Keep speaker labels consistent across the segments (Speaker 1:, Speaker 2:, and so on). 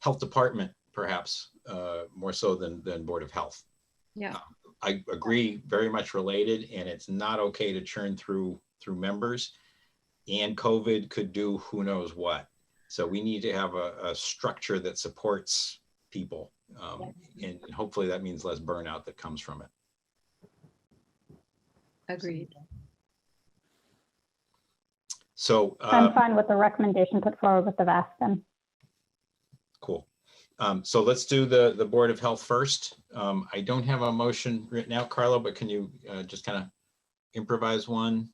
Speaker 1: health department perhaps, uh, more so than, than Board of Health. Um,
Speaker 2: Yeah.
Speaker 1: I agree, very much related, and it's not okay to churn through, through members. And COVID could do who knows what. So we need to have a, a structure that supports people. Um, and hopefully that means less burnout that comes from it.
Speaker 2: Agreed.
Speaker 1: So. uh,
Speaker 3: I'm fine with the recommendation put forward with the VAST then.
Speaker 1: Cool. Um, so let's do the, the Board of Health first. Um, I don't have a motion written out, Carlo, but can you, uh, just kind of improvise one?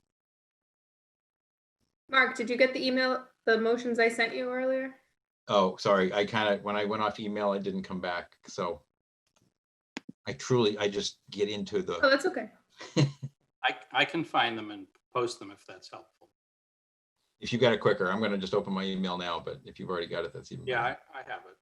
Speaker 4: Mark, did you get the email, the motions I sent you earlier?
Speaker 1: Oh, sorry, I kind of, when I went off email, I didn't come back, so. I truly, I just get into
Speaker 4: Oh,
Speaker 1: the,
Speaker 4: that's okay.
Speaker 5: I, I can find them and post them if that's helpful.
Speaker 1: if you got it quicker, I'm gonna just open my email now, but if you've already got it, that's even.
Speaker 5: Yeah, I,
Speaker 1: better.
Speaker 5: I have it.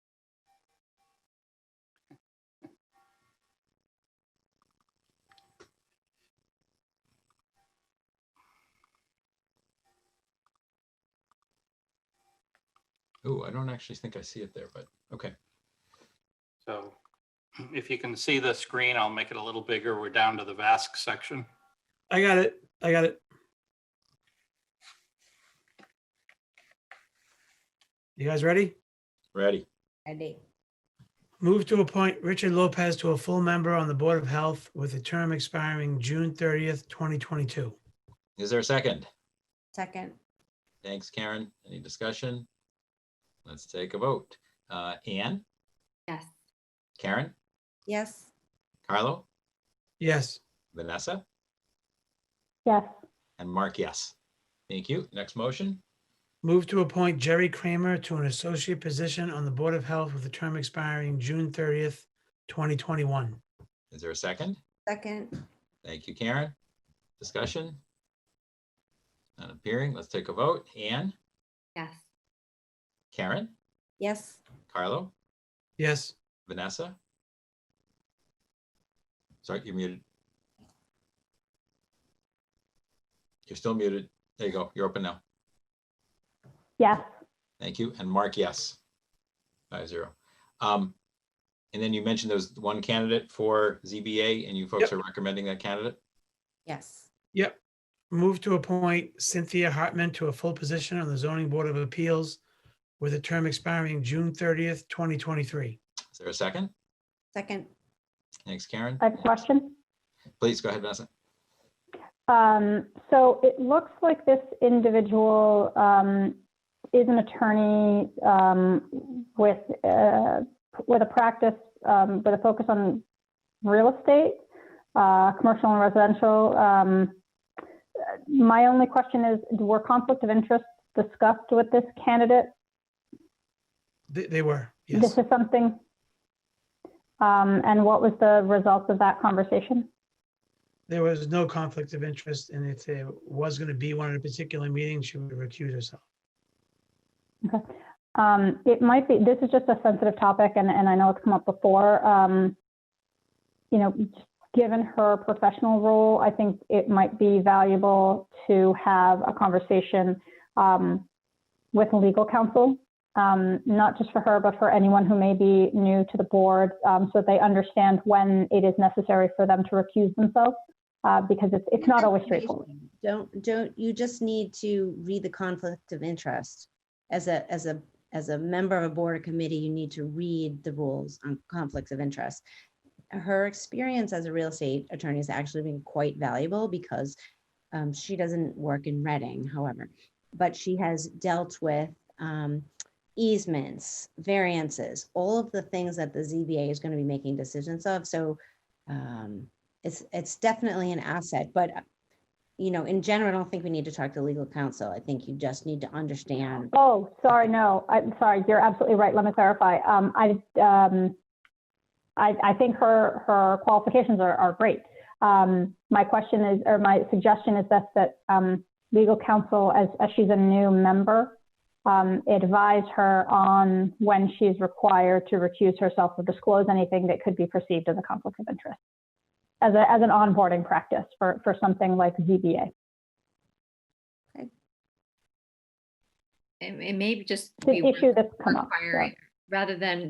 Speaker 1: Ooh, I don't actually think I see it there, but, okay,
Speaker 5: So if you can see the screen, I'll make it a little bigger. We're down to the VASC section.
Speaker 6: I got it. I got it. You guys ready?
Speaker 1: ready.
Speaker 7: Ready.
Speaker 6: Move to appoint Richard Lopez to a full member on the Board of Health with a term expiring June thirtieth, twenty twenty-two.
Speaker 1: Is there a second?
Speaker 7: Second.
Speaker 1: Thanks, Karen. Any discussion? Let's take a vote. Uh, Anne,
Speaker 2: Yes.
Speaker 1: Karen,
Speaker 7: Yes.
Speaker 1: Carlo?
Speaker 6: Yes,
Speaker 1: Vanessa
Speaker 3: Yes,
Speaker 1: and Mark, yes. Thank you. Next motion.
Speaker 6: move to appoint Jerry Kramer to an associate position on the Board of Health with a term expiring June thirtieth, twenty twenty-one.
Speaker 1: Is there a second?
Speaker 7: Second.
Speaker 1: Thank you, Karen. Discussion? Not appearing. Let's take a vote. Anne,
Speaker 2: Yes.
Speaker 1: Karen,
Speaker 7: Yes.
Speaker 1: Carlo,
Speaker 6: Yes,
Speaker 1: Vanessa? Sorry, you're muted. You're still muted. There you go. You're open now.
Speaker 3: yes,
Speaker 1: Thank you. And Mark, yes. Five zero. Um, and then you mentioned there was one candidate for ZBA and you folks
Speaker 6: Yep.
Speaker 1: are recommending that candidate?
Speaker 7: Yes.
Speaker 6: yep. Move to appoint Cynthia Hartman to a full position on the Zoning Board of Appeals with a term expiring June thirtieth, twenty twenty-three.
Speaker 1: Is there a second?
Speaker 7: Second.
Speaker 1: Thanks, Karen.
Speaker 3: I have a question.
Speaker 1: Please go ahead, Vanessa.
Speaker 3: Um, so it looks like this individual, um, is an attorney, um, with, uh, with a practice, um, with a focus on real estate, uh, commercial and residential. Um, my only question is, were conflict of interest discussed with this candidate?
Speaker 6: They, they were,
Speaker 3: This
Speaker 6: yes.
Speaker 3: is something. Um, and what was the result of that conversation?
Speaker 6: There was no conflict of interest, and if there was going to be one at a particular meeting, she would recuse herself.
Speaker 3: Um, it might be, this is just a sensitive topic and, and I know it's come up before. Um, you know, given her professional role, I think it might be valuable to have a conversation, um, with legal counsel. Um, not just for her, but for anyone who may be new to the board, um, so that they understand when it is necessary for them to recuse themselves. Uh, because it's, it's not always straightforward.
Speaker 7: Don't, don't, you just need to read the conflict of interest. As a, as a, as a member of a board or committee, you need to read the rules on conflicts of interest. Her experience as a real estate attorney has actually been quite valuable because um, she doesn't work in Reading, however, but she has dealt with um, easements, variances, all of the things that the ZBA is going to be making decisions of. So um, it's, it's definitely an asset, but uh, you know, in general, I don't think we need to talk to legal counsel. I think you just need to understand.
Speaker 3: Oh, sorry, no, I'm sorry, you're absolutely right, let me clarify. Um, I, um, I, I think her, her qualifications are, are great. Um, my question is, or my suggestion is that, that, um, legal counsel, as, as she's a new member, um, advise her on when she's required to recuse herself or disclose anything that could be perceived as a conflict of interest. As a, as an onboarding practice for, for something like ZBA.
Speaker 2: It, it may be just.
Speaker 3: This
Speaker 2: be worth
Speaker 3: issue that's come up. yeah.
Speaker 2: Requiring rather than